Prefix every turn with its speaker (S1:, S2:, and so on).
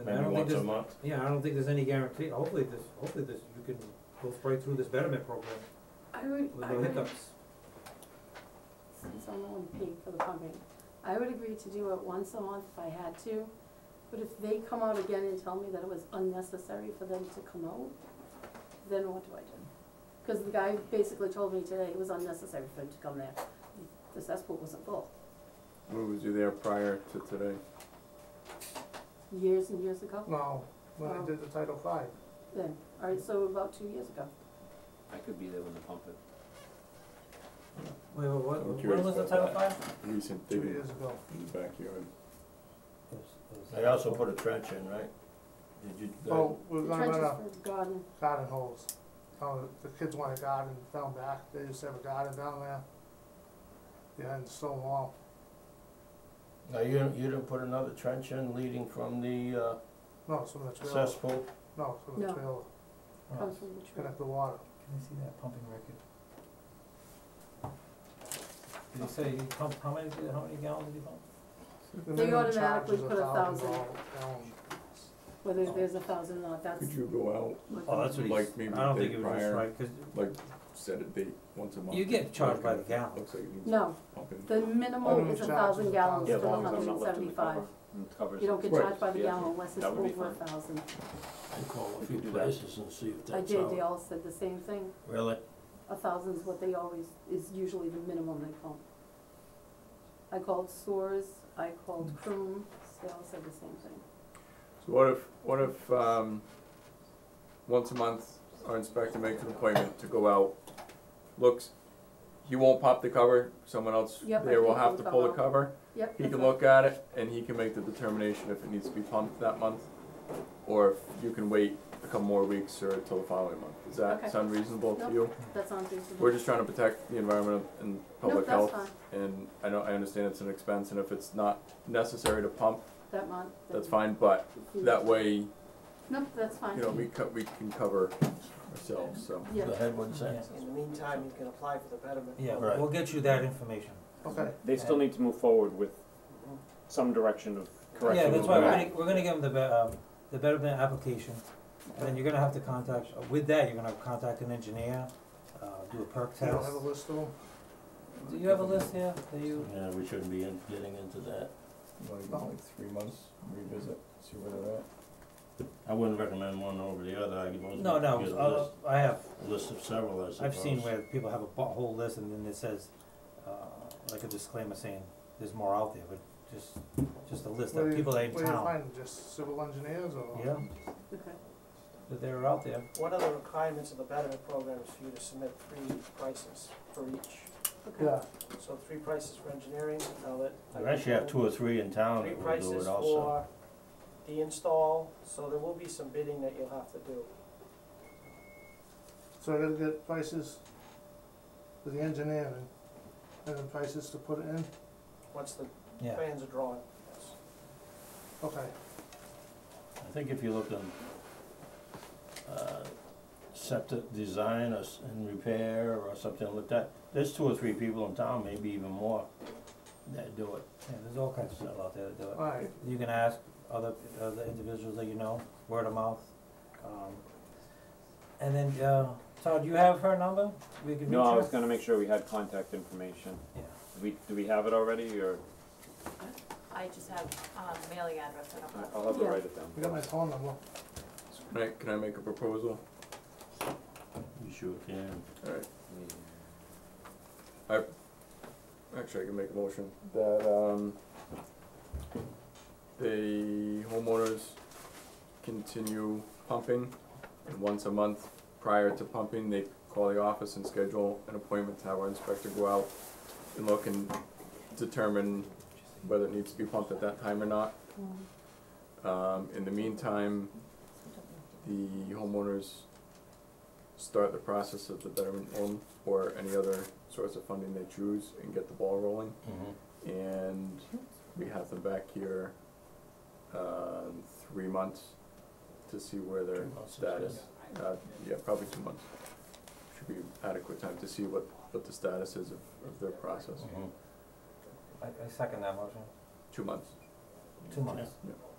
S1: And I
S2: maybe
S1: don't think
S2: once a
S1: there's-
S2: month.
S1: Yeah, I don't think there's any guarantee, hopefully this, hopefully this, you can go right through this betterment program
S3: I would,
S1: with
S3: I
S1: no
S3: would,
S1: hiccups.
S3: since I'm the one paying for the pumping, I would agree to do it once a month if I had to. But if they come out again and tell me that it was unnecessary for them to come out, then what do I do? Cause the guy basically told me today it was unnecessary for him to come there, the cesspool wasn't full,
S4: When was you there prior to today?
S3: years and years ago,
S5: No, when I
S3: Oh.
S5: did the Title Five.
S3: then, alright, so about two years ago.
S6: I could be there when they pump it.
S1: Wait, wait, what,
S4: I'm
S1: when
S4: curious
S1: was the
S4: about
S1: Title
S4: that.
S1: Five?
S4: Recent
S5: Two
S4: digging
S5: years ago.
S4: in the backyard.
S2: They also put a trench in, right? Did you, the-
S1: Oh.
S5: Well, we were
S3: The
S5: gonna run a
S3: Trenches for garden,
S5: garden hose. Uh, the kids want a garden down back, they used to have a garden down there. Behind the stone wall.
S2: now, you didn't, you didn't put another trench in leading from the uh,
S5: No, it's from the trailer.
S2: cesspool?
S5: No, it's from the
S3: No.
S5: trailer.
S1: Oh,
S3: comes from the tree.
S5: Connect the water.
S7: Can I see that pumping record?
S1: Did you say you pumped, how many, how many gallons did you pump?
S5: The
S3: They
S5: minimum
S3: automatically
S5: charge is
S3: put a
S5: $1,000
S3: thousand.
S5: gallon.
S3: Whether there's a thousand or not, that's
S4: Could you go
S3: what.
S1: Oh, that's what
S4: out,
S1: he's,
S4: like maybe
S1: I don't
S4: the
S1: think
S4: day
S1: it was just
S4: prior,
S1: right, cause
S4: like set a date once a month?
S1: you get charged by the
S4: Okay,
S1: gallon.
S4: Looks like it needs
S3: No,
S4: pumping.
S3: the
S5: Minimum
S3: minimum is a
S5: charge
S3: thousand
S5: is
S3: gallons for
S5: Yeah, as
S3: the
S5: long
S3: hundred and seventy-five. You don't get
S4: Right.
S3: charged by the
S6: Yeah,
S3: gallon unless it's
S6: that would be
S3: over a
S6: fine.
S3: thousand.
S8: I call a
S2: If
S8: few
S2: you do that.
S8: places and see if
S3: I
S8: that's
S3: did, they
S8: out.
S3: all said the same thing.
S2: Really?
S3: A thousand's what they always, is usually the minimum they call. I called Soars, I called
S4: Hmm.
S3: Croom, they all said the same thing.
S4: So what if, what if, um, once a month, our inspector makes an appointment to go out, looks, he won't pop the cover, someone else
S3: Yep, I
S4: there will
S3: can
S4: have
S3: pull
S4: to
S3: the
S4: pull the
S3: cover.
S4: cover.
S3: Yep.
S4: He
S3: that's
S4: can
S3: all.
S4: look at it and he can make the determination if it needs to be pumped that month, or if you can wait a couple more weeks or till the following month. Does
S3: Okay.
S4: that sound reasonable to
S3: Nope.
S4: you?
S3: That's on Facebook.
S4: We're just trying to protect the environment and public
S3: that's
S4: health.
S3: fine.
S4: And I know, I understand it's an expense and if it's not necessary to pump,
S3: That month.
S4: that's
S3: then-
S4: fine, but that way, you
S3: Nope, that's fine.
S4: know, we co- we can cover ourselves, so.
S3: Yeah,
S2: The headwood
S1: Yeah.
S2: sense?
S9: In the meantime, he's gonna apply for the betterment.
S1: Yeah,
S2: Right.
S1: we'll get you that information.
S5: Okay,
S6: They still need to move forward with some direction of correction.
S1: Yeah, that's why
S6: of
S1: we're
S6: that.
S1: gonna, we're gonna give them the, be- um, the betterment application, and then you're gonna have to contact, with that, you're gonna contact an engineer, uh, do a perk
S5: you
S1: test.
S5: don't have a list of them?
S1: Do you have a list here, do you?
S8: Yeah, we shouldn't be in, getting into that.
S4: Like, like three months, revisit, see where they're at.
S8: I wouldn't recommend one over the other, I could most
S1: No, no,
S8: get a list,
S1: uh, I have,
S8: a list of several, I suppose.
S1: I've seen where people have a bu- whole list, and then it says, uh, like a disclaimer saying, there's more out there, but just, just a list
S5: Where
S1: of
S5: do you-
S1: people that are in
S5: Where do you
S1: town,
S5: find them? just civil engineers or?
S1: yeah,
S3: okay.
S1: that they're out there.
S9: What are the requirements of the betterment program is for you to submit three prices for each?
S3: Okay.
S5: Yeah,
S9: So three prices for engineering, now that.
S8: You actually have two or three in town
S9: Three
S8: that will do
S9: prices
S8: it also.
S9: for the install, so there will be some bidding that you'll have to do.
S5: so I gotta get prices for the engineering and then prices to put it in,
S9: Once the
S1: Yeah.
S9: plans are drawn, yes.
S5: okay.
S8: I think if you look on, uh, septic design or, s- and repair or something like that, there's two or three people in town, maybe even more, that do it.
S1: Yeah, there's all kinds of stuff out there that do it.
S5: Alright,
S1: You can ask other, other individuals that you know, word of mouth. Um, and then, uh, Todd, do you have her number? We can
S6: No,
S1: reach
S6: I
S1: her?
S6: was gonna make sure we had contact information.
S1: Yeah.
S6: Do we, do we have it already, or,
S10: I just have, um, mailing address, I don't have.
S6: I'll have her
S3: Yeah.
S6: write it down.
S5: we got my phone number.
S4: Can I, can I make a proposal?
S8: You sure can.
S4: Alright. I, actually, I can make a motion that, um, the homeowners continue pumping, and once a month prior to pumping, they call the office and schedule an appointment to have our inspector go out and look and determine whether it needs to be pumped at that time or not.
S3: Mm.
S4: Um, in the meantime, the homeowners start the process of the betterment loan or any other source of funding they choose and get the ball rolling.
S8: Mm-hmm.
S4: And we have them back here, uh, in three months to see where their
S8: Two months,
S4: status, uh, yeah, probably two months. Should be adequate time to see what, what the status is of, of their process.
S8: Mhm.
S1: I, I second that motion.
S4: Two months.
S1: Two months.
S4: Yeah.